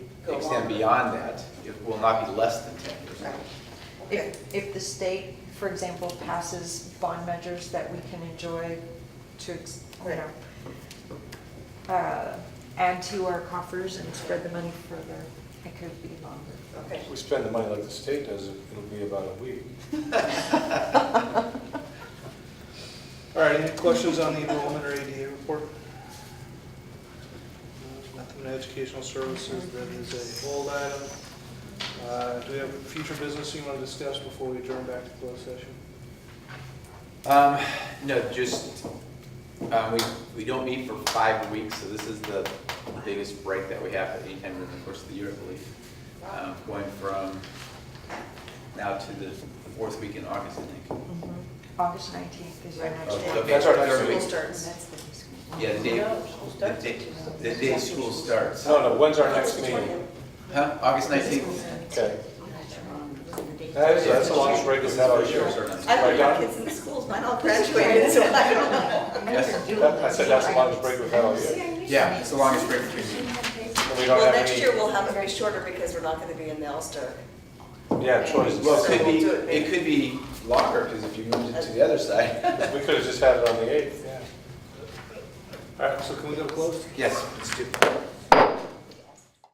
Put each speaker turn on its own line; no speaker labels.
go
extend
longer.
beyond that, it will not be less than ten years.
Right. Okay.
If, if the state, for example, passes bond measures that we can enjoy to, ex- you know, uh, add to our coffers and spread the money further, it could be longer.
Okay.
If we spend the money like the state does, it'll be about a week.
All right, any questions on the enrollment or ADA report? Nothing in educational services, that is a hold item. Uh, Do we have future business you want to discuss before we adjourn back to closed session?
Um, no, just, um, we, we don't meet for five weeks, so this is the biggest break that we have at any time during the course of the year, I believe. Um, going from now to the fourth week in August, I think. Oh,
August 19th is our next
Okay.
one.
That's our next
School
week.
starts.
That's the next one.
Yeah, the day,
No, school
the
starts.
day, the day school starts.
No, no, when's our next meeting?
Huh, August nineteenth?
Okay. That
That
is, that's the longest break we've had all year.
I
Right,
don't
Don?
have kids in the schools, mine all graduated, so I don't know.
Yes,
That- I said that's the longest break we've had all year.
yeah, it's the longest break between.
And we don't
Well,
have
next year
any,
we'll have it very shorter because we're not going to be in the Ulster.
yeah, choice.
Well, it
We
could be, it could be longer, because if you moved it to the other side.
could have just had it on the 8th.
All right, so can we go to closed?
Yes, it's two.